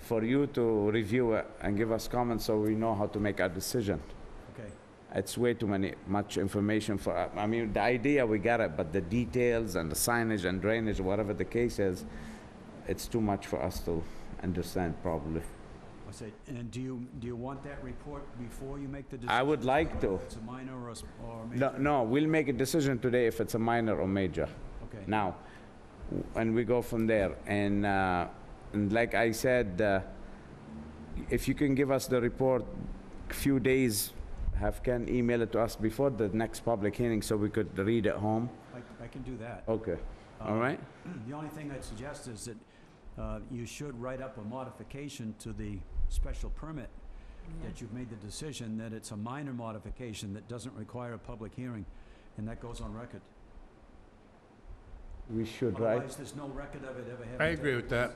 for you to review it and give us comments so we know how to make our decision. Okay. It's way too many, much information for, I mean, the idea, we got it, but the details and the signage and drainage, whatever the case is, it's too much for us to understand probably. I said, and do you, do you want that report before you make the decision? I would like to. Whether It's a minor or a, s- or a No, major? no, we'll make a decision today if it's a minor or major. Okay. now, w- and we go from there. And, uh, and like I said, uh, if you can give us the report, few days, have Ken email it to us before the next public hearing so we could read at home. I, I can do that. Okay, Oh, all Um, right? The only thing I'd suggest is that uh, you should write up a modification to the special permit that you've made the decision that it's a minor modification that doesn't require a public hearing, and that goes on record. We should, right? Otherwise, there's no record of it ever having. I agree taken with place.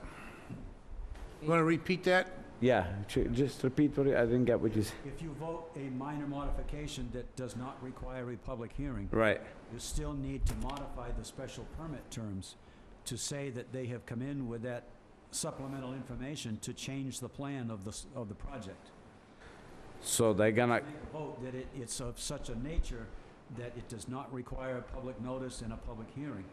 that. Want to repeat that? Yeah, ju- just repeat what you, I didn't get what you said. If you vote a minor modification that does not require a public hearing, Right, you still need to modify the special permit terms to say that they have come in with that supplemental information to change the plan of the, s- of the project. so they're gonna, Make a vote that it, it's of such a nature that it does not require a public notice and a public hearing.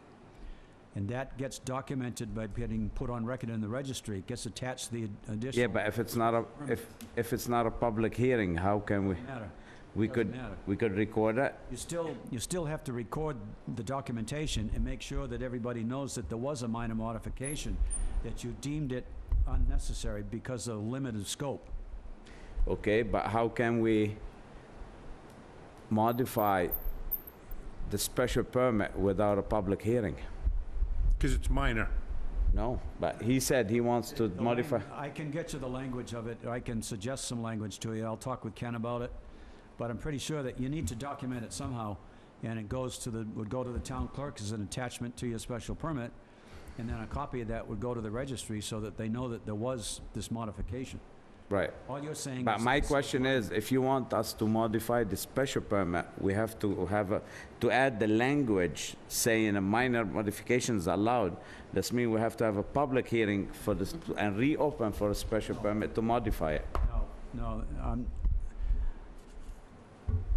And that gets documented by getting put on record in the registry, It gets attached to the additional. yeah, but if it's not a, if, if it's not a public hearing, how can we, Doesn't matter, we doesn't could, matter. we could record it? You still, you still have to record the documentation and make sure that everybody knows that there was a minor modification, that you deemed it unnecessary because of limited scope. Okay, but how can we modify the special permit without a public hearing? Because it's minor. No, but he said he wants to The modify. lang- I can get you the language of it, or I can suggest some language to you, I'll talk with Ken about it. But I'm pretty sure that you need to document it somehow, and it goes to the, would go to the town clerk as an attachment to your special permit, and then a copy of that would go to the registry so that they know that there was this modification. Right. All you're saying is. But my it's- question is, if you want us to modify the special permit, we have to have a, to add the language saying a minor modifications allowed. This means we have to have a public hearing for this, and reopen for a special permit to modify it. No, no, um,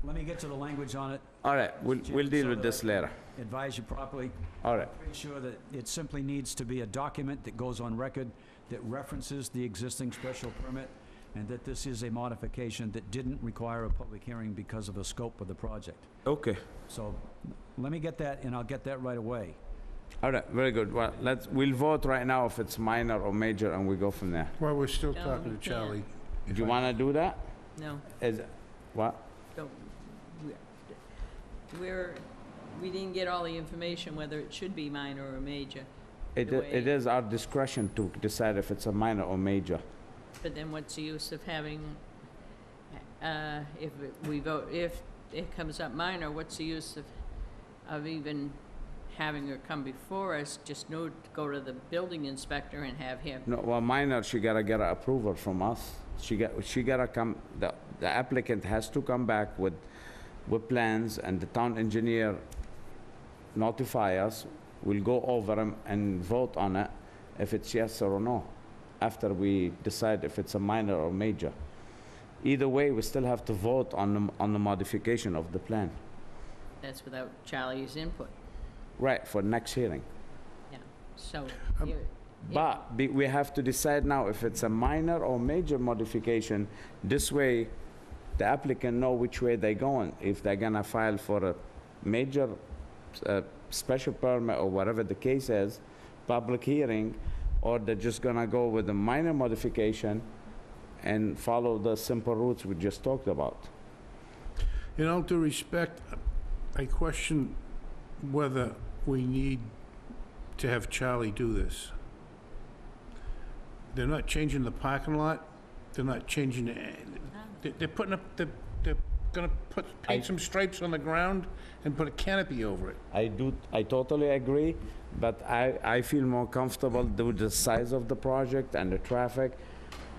let me get to the language on it, All right, we'll, we'll deal with this later. advise you properly. All right. Pretty sure that it simply needs to be a document that goes on record that references the existing special permit and that this is a modification that didn't require a public hearing because of the scope of the project. Okay. So let me get that and I'll get that right away. All right, very good. Well, let's, we'll vote right now if it's minor or major, and we go from there. While we're still No, talking we to Charlie. Do you want to do that? No, Is, what? don't, we're- we're, we didn't get all the information whether it should be minor or major, It, i- it Wait. is our discretion to decide if it's a minor or major. but then what's the use of having, uh, if it- we vote, if it comes up minor, what's the use of, of even having her come before us, just no, go to the building inspector and have him, No, well, minor, she gotta get a approval from us. She got, she gotta come, the, the applicant has to come back with, with plans, and the town engineer notify us, we'll go over them and vote on it, if it's yes or no, after we decide if it's a minor or major. Either way, we still have to vote on, the- on the modification of the plan. that's without Charlie's input, Right, for next hearing. so. Um, you- But be- we have to decide now if it's a minor or major modification. This way, the applicant know which way they're going, if they're gonna file for a major, uh, special permit or whatever the case is, public hearing, or they're just gonna go with a minor modification and follow the simple routes we just talked about. In all due respect, I question whether we need to have Charlie do this. They're not changing the parking lot. They're not changing, the- they- they're putting up, they're, they're gonna put, paint some stripes on the ground and put a canopy over it. I do, I totally agree, but I, I feel more comfortable with the size of the project and the traffic.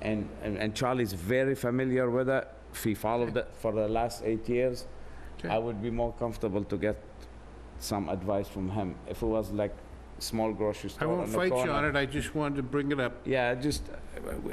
And, and and Charlie's very familiar with it. If he followed it for the last eight years, I Okay. would be more comfortable to get some advice from him. If it was like small grocery I store won't on the fight you corner. on it. I just wanted to bring it up. Yeah, just, uh, we-